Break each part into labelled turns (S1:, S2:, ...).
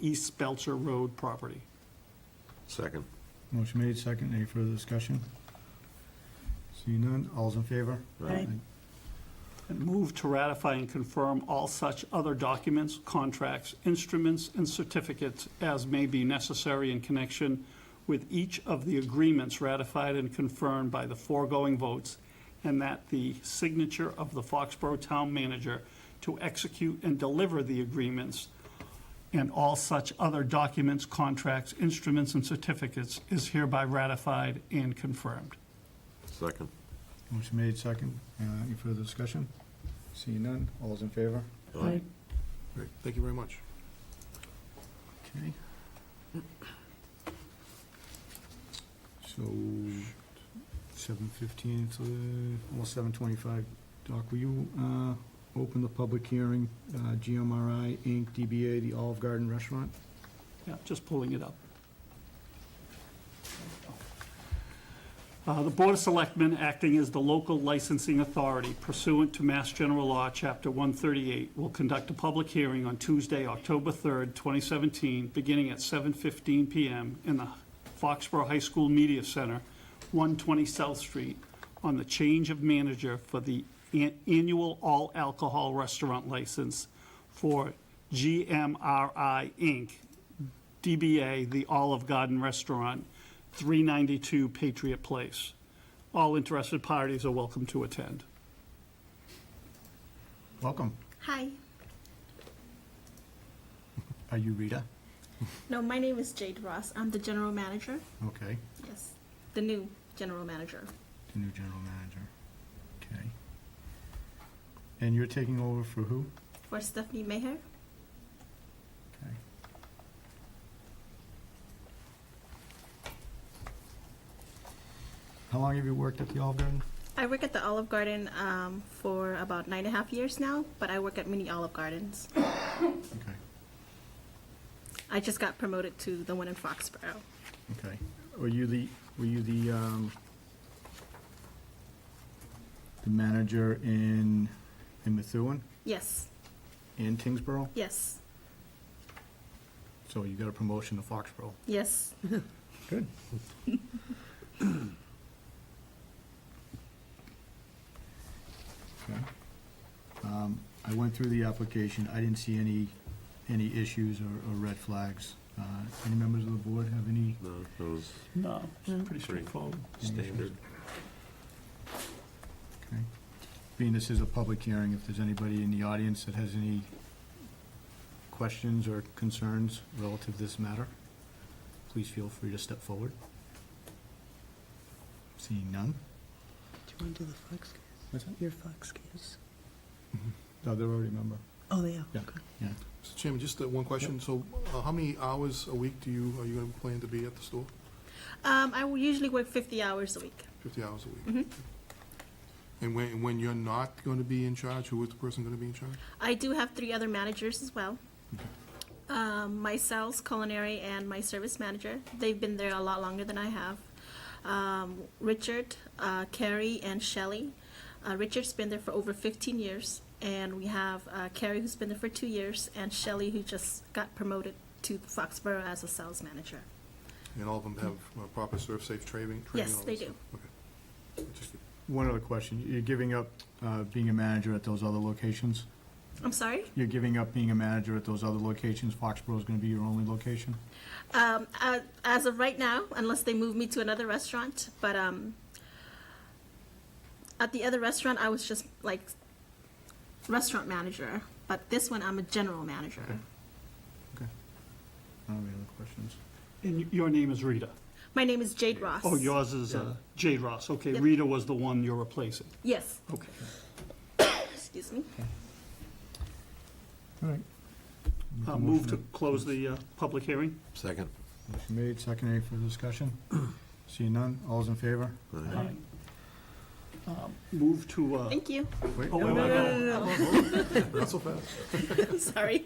S1: East Belcher Road property.
S2: Second.
S3: Motion made, second. Any further discussion? Seeing none, all's in favor?
S4: Aye.
S1: And move to ratify and confirm all such other documents, contracts, instruments, and certificates as may be necessary in connection with each of the agreements ratified and confirmed by the foregoing votes, and that the signature of the Foxborough Town Manager to execute and deliver the agreements and all such other documents, contracts, instruments, and certificates is hereby ratified and confirmed.
S2: Second.
S3: Motion made, second. Uh, Any further discussion? Seeing none, all's in favor?
S4: Aye.
S5: Great, thank you very much.
S3: Okay. So, seven fifteen, uh, almost seven twenty-five. Doc, will you uh, open the public hearing, uh, GMRI Inc., DBA, the Olive Garden Restaurant?
S1: Yeah, just pulling it up. Uh, The Board of Selectmen, acting as the local licensing authority pursuant to Mass General Law, Chapter 138, will conduct a public hearing on Tuesday, October 3rd, 2017, beginning at 7:15 PM in the Foxborough High School Media Center, 120 South Street, on the change of manager for the an- annual all-alcohol restaurant license for GMRI Inc., DBA The Olive Garden Restaurant, 392 Patriot Place. All interested parties are welcome to attend.
S3: Welcome.
S4: Hi.
S3: Are you Rita?
S4: No, my name is Jade Ross. I'm the general manager.
S3: Okay,
S4: Yes, the new general manager.
S3: the new general manager. Okay. And you're taking over for who?
S4: For Stephanie Maher.
S3: Okay. How long have you worked at the Olive Garden?
S4: I work at the Olive Garden um, for about nine and a half years now, but I work at many Olive Gardens.
S3: Okay,
S4: I just got promoted to the one in Foxborough.
S3: okay. Were you the, were you the, um, the manager in, in Methuen
S4: Yes,
S3: and Tingsboro?
S4: yes,
S3: So you got a promotion to Foxborough.
S4: yes.
S3: Good. Okay. Um, I went through the application, I didn't see any, any issues or, or red flags. Uh, Any members of the board have any?
S2: No, that was
S1: No, Uh,
S4: Mm-hmm.
S1: it's pretty straightforward.
S2: straightforward. standard.
S3: Okay. Being this is a public hearing, if there's anybody in the audience that has any questions or concerns relative to this matter, please feel free to step forward. Seeing none?
S6: Do you want to do the flex case?
S3: What's that?
S6: Your flex case?
S3: No, they're already a member.
S6: Oh, they are.
S3: Yeah.
S6: Okay.
S3: Yeah.
S5: Mr. Chairman, just that one question, so uh, how many hours a week do you, are you gonna plan to be at the store?
S4: Um, I will usually work 50 hours a week.
S5: Fifty hours a week?
S4: Mm-hmm.
S5: And when, and when you're not gonna be in charge, who is the person gonna be in charge?
S4: I do have three other managers as well. Um, my sales, culinary, and my service manager. They've been there a lot longer than I have. Um, Richard, uh, Carrie, and Shelley. Uh, Richard's been there for over 15 years, and we have uh, Carrie who's been there for two years, and Shelley who just got promoted to Foxborough as a sales manager.
S5: And all of them have uh, proper serve safe training? training,
S4: Yes,
S5: all
S4: they
S5: that
S4: do.
S5: stuff? Okay. Just-
S3: One other question. You're giving up uh, being a manager at those other locations?
S4: I'm sorry.
S3: You're giving up being a manager at those other locations? Foxborough's going to be your only location?
S4: Um, uh, as of right now, unless they move me to another restaurant, but um, at the other restaurant, I was just like restaurant manager, but this one, I'm a general manager.
S3: Okay. I don't have any other questions.
S1: And y- your name is Rita?
S4: My name is Jade Ross.
S1: Oh, yours is uh, Jade Ross. Okay,
S4: Yep.
S1: Rita was the one you're replacing.
S4: Yes,
S1: Okay.
S4: excuse me.
S3: All right.
S1: Uh, Move to close the uh, public hearing?
S2: Second.
S3: Motion made, second, any further discussion? Seeing none, all's in favor?
S1: Uh-huh.
S2: Aye.
S1: Um, Move to, uh,
S4: Thank you.
S3: Wait,
S1: Oh, wait,
S3: no,
S1: wait,
S3: no,
S1: wait.
S5: Not so fast.
S4: Sorry.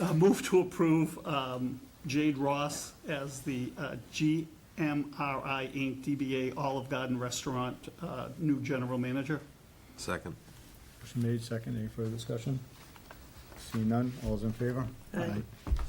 S1: Uh, Move to approve um, Jade Ross as the uh, GMRI Inc., DBA Olive Garden Restaurant, uh, new general manager.
S2: Second.
S3: Motion made, second, any further discussion? Seeing none, all's in favor?
S6: Aye.
S3: Aye.